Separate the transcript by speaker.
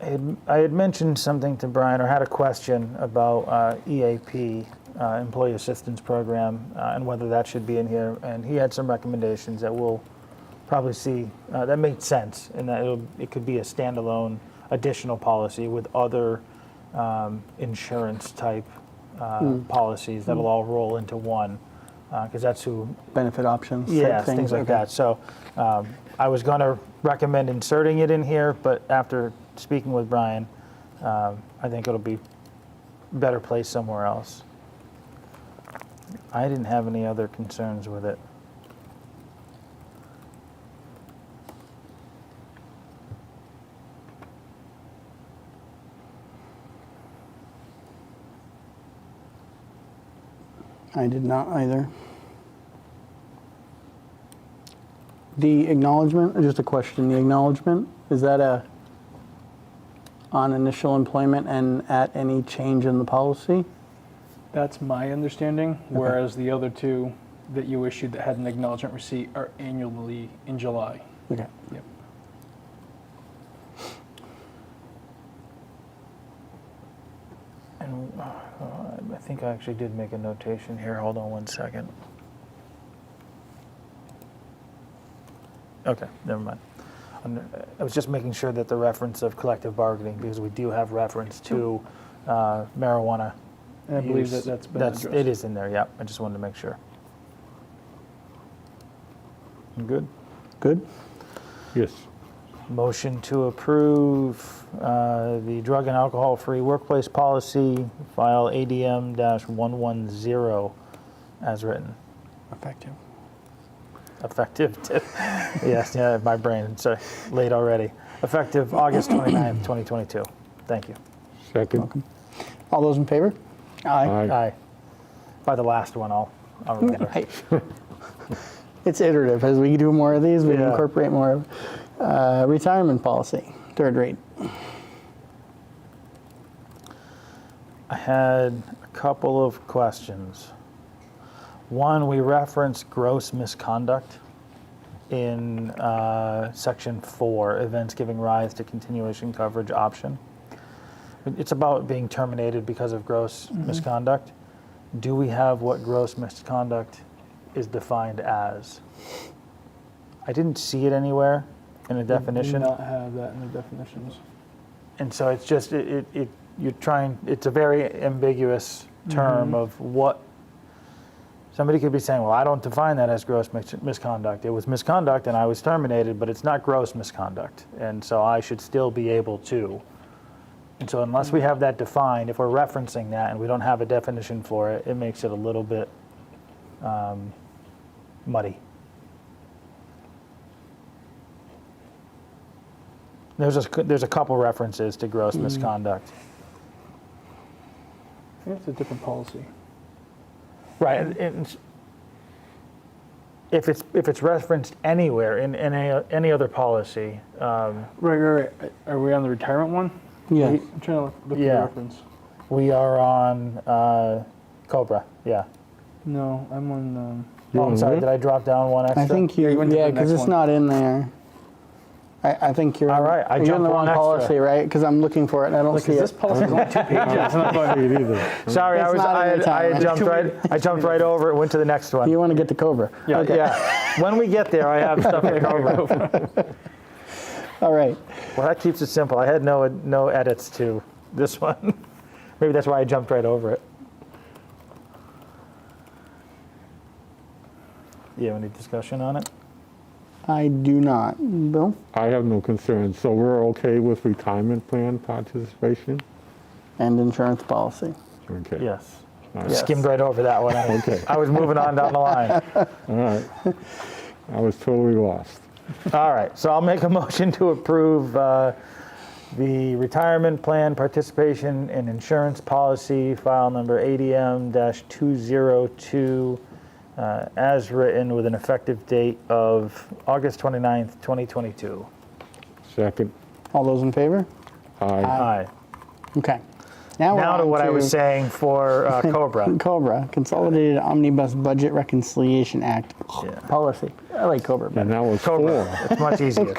Speaker 1: I had- I had mentioned something to Brian or had a question about uh, EAP, uh, Employee Assistance Program, uh, and whether that should be in here. And he had some recommendations that we'll probably see, uh, that made sense, and that it'll- it could be a standalone additional policy with other um, insurance-type uh, policies that'll all roll into one, because that's who
Speaker 2: benefit options? type
Speaker 1: yeah, things, like
Speaker 2: okay.
Speaker 1: that. So um, I was going to recommend inserting it in here, but after speaking with Brian, um, I think it'll be better placed somewhere else. I didn't have any other concerns with it.
Speaker 2: I did not either. The acknowledgement, or just a question, the acknowledgement, is that a on initial employment and at any change in the policy?
Speaker 3: That's my understanding, whereas the other two that you issued that had an acknowledgement receipt are annually in July.
Speaker 2: Okay.
Speaker 3: Yep.
Speaker 1: And uh, I think I actually did make a notation here. Hold on one second. Okay, never mind. I'm- I was just making sure that the reference of collective bargaining, because we do have reference to uh, marijuana.
Speaker 3: And I believe
Speaker 1: use.
Speaker 3: that that's been
Speaker 1: That's- It
Speaker 3: addressed.
Speaker 1: is in there, yeah. I just wanted to make sure. You Good.
Speaker 2: Good?
Speaker 4: Yes.
Speaker 1: Motion to approve uh, the drug and alcohol-free workplace policy, file ADM-110 as written,
Speaker 2: Effective.
Speaker 1: effective, t- yes, yeah, my brain, sorry, late already, effective August 29th, 2022. Thank you.
Speaker 4: Second.
Speaker 2: All those in favor? Aye.
Speaker 1: Aye. By the last one, I'll, I'll remember.
Speaker 2: Aye. It's iterative. As we do more of these, we
Speaker 1: Yeah.
Speaker 2: incorporate more of uh, retirement policy, third rate.
Speaker 1: I had a couple of questions. One, we referenced gross misconduct in uh, section four, events giving rise to continuation coverage option. It's about being terminated because of gross misconduct. Do we have what gross misconduct is defined as? I didn't see it anywhere in a definition.
Speaker 3: Do not have that in the definitions.
Speaker 1: And so it's just, it, it, it you're trying, it's a very ambiguous term of what, somebody could be saying, well, I don't define that as gross mis- misconduct. It was misconduct and I was terminated, but it's not gross misconduct. And so I should still be able to. And so unless we have that defined, if we're referencing that and we don't have a definition for it, it makes it a little bit um, muddy. There's a, there's a couple references to gross misconduct.
Speaker 3: I think it's a different policy.
Speaker 1: Right, and- and if it's, if it's referenced anywhere in, in any, any other policy, um,
Speaker 3: Right, right, right. Are we on the retirement one?
Speaker 2: Yeah.
Speaker 3: I'm trying to look for the
Speaker 1: Yeah.
Speaker 3: reference.
Speaker 1: we are on, uh, Cobra, yeah.
Speaker 3: No, I'm on, um,
Speaker 1: Oh, I'm sorry,
Speaker 4: Mhm.
Speaker 1: did I drop down one extra?
Speaker 2: I think you,
Speaker 3: Yeah, you went to the
Speaker 2: yeah, because
Speaker 3: next
Speaker 2: it's
Speaker 3: one.
Speaker 2: not in there. I, I think you're,
Speaker 1: All right, I
Speaker 2: you're in
Speaker 1: jumped
Speaker 2: the
Speaker 1: one
Speaker 2: wrong
Speaker 1: extra.
Speaker 2: policy, right? Because I'm looking for it and I don't see
Speaker 3: because this
Speaker 2: it.
Speaker 3: policy is only two pages.
Speaker 4: I don't see it either.
Speaker 1: Sorry, I
Speaker 2: It's
Speaker 1: was,
Speaker 2: not in
Speaker 1: I
Speaker 2: the
Speaker 1: had, I had
Speaker 2: timeline.
Speaker 1: jumped right, I jumped right over it, went to the next one.
Speaker 2: You want to get to Cobra.
Speaker 3: Yeah,
Speaker 2: Okay.
Speaker 1: Yeah, when we get there, I have stuff to cover.
Speaker 2: All right.
Speaker 1: Well, that keeps it simple, I had no, no edits to this one. Maybe that's why I jumped right over it. You have any discussion on it?
Speaker 2: I do not. Bill?
Speaker 4: I have no concerns. So we're okay with retirement plan participation?
Speaker 2: And insurance policy.
Speaker 4: Okay.
Speaker 1: Yes.
Speaker 4: All right.
Speaker 1: I Skimmed right over that one. I-
Speaker 4: Okay.
Speaker 1: I was moving on down the line.
Speaker 4: All right. I was totally lost.
Speaker 1: All right, so I'll make a motion to approve uh, the retirement plan participation and insurance policy, file number ADM-202, uh, as written with an effective date of August 29th, 2022.
Speaker 4: Second.
Speaker 2: All those in favor?
Speaker 4: Aye.
Speaker 1: Aye.
Speaker 2: Okay. we're
Speaker 1: Now to
Speaker 2: on
Speaker 1: what I was
Speaker 2: to
Speaker 1: saying for uh, Cobra.
Speaker 2: Cobra, Consolidated Omnibus Budget Reconciliation Act
Speaker 1: Yeah.
Speaker 2: policy. I like Cobra better.
Speaker 4: And that was
Speaker 1: Cobra,
Speaker 4: four.
Speaker 1: it's much easier.